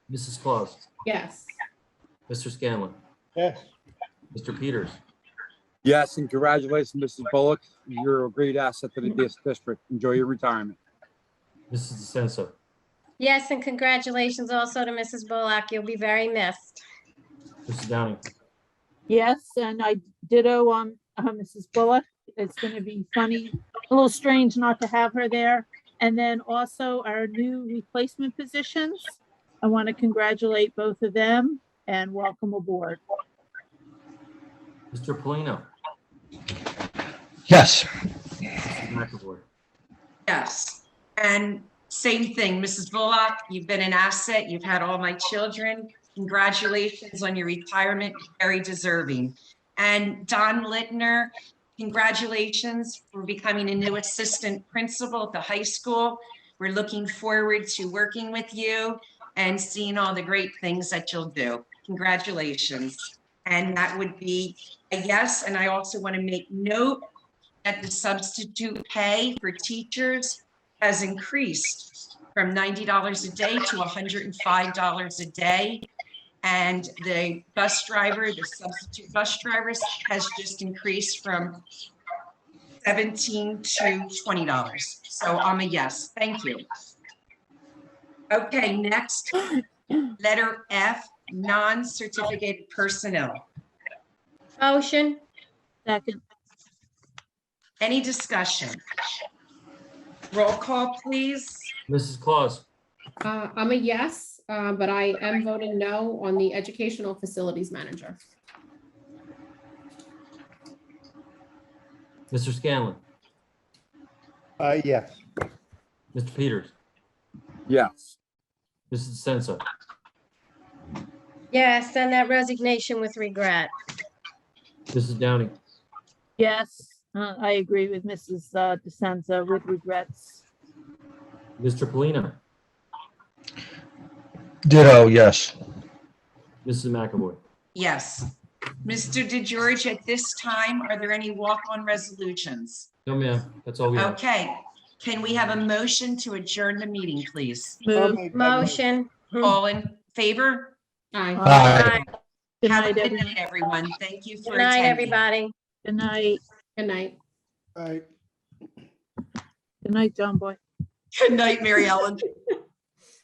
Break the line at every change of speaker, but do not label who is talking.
Mrs. Claus,
Yes.
Mr. Scanlon,
yes,
Mr. Peters,
Yes, and congratulations, Mrs. Bullock. You're a great asset to the dis- district. Enjoy your retirement.
Mrs. DeSenza,
Yes, and congratulations also to Mrs. Bullock. You'll be very missed.
Mrs. Downing,
Yes, and I ditto um uh, Mrs. Bullock. It's going to be funny, a little strange not to have her there. And then also our new replacement positions. I want to congratulate both of them and welcome aboard.
Mr. Polino,
Yes,
Mrs. McAvoy,
Yes, and same thing, Mrs. Bullock, you've been an asset, you've had all my children. Congratulations on your retirement, very deserving. And Don Littner, congratulations for becoming a new assistant principal at the high school. We're looking forward to working with you and seeing all the great things that you'll do. Congratulations. And that would be a yes, and I also want to make note that the substitute pay for teachers has increased from $90 a day to $105 a day. And the bus driver, the substitute bus drivers has just increased from 17 to $20. So I'm a yes, thank you. Okay, next, letter F, non-certificated personnel.
Motion?
Second,
Any discussion? Roll call, please.
Mrs. Claus,
Uh, I'm a yes, uh, but I am voting no on the educational facilities manager.
Mr. Scanlon,
uh, yes,
Mr. Peters,
Yes,
Mrs. DeSenza,
Yes, and that resignation with regret.
Mrs. Downing,
yes, uh, I agree with Mrs. uh, DeSenza with regrets.
Mr. Polino,
ditto, yes.
Mrs. McAvoy,
Yes. Mr. DeGeorge, at this time, are there any walk-on resolutions?
no ma'am, that's all we have.
Okay. Can we have a motion to adjourn the meeting, please?
Move.
Motion?
All in favor?
Aye.
Aye.
Aye.
Good
Have a
night,
good
everyone.
night, everyone. Thank you for
Good night,
attending.
everybody.
Good night.
Good night.
I,
Good night, John Boy.
Good night, Mary Ellen.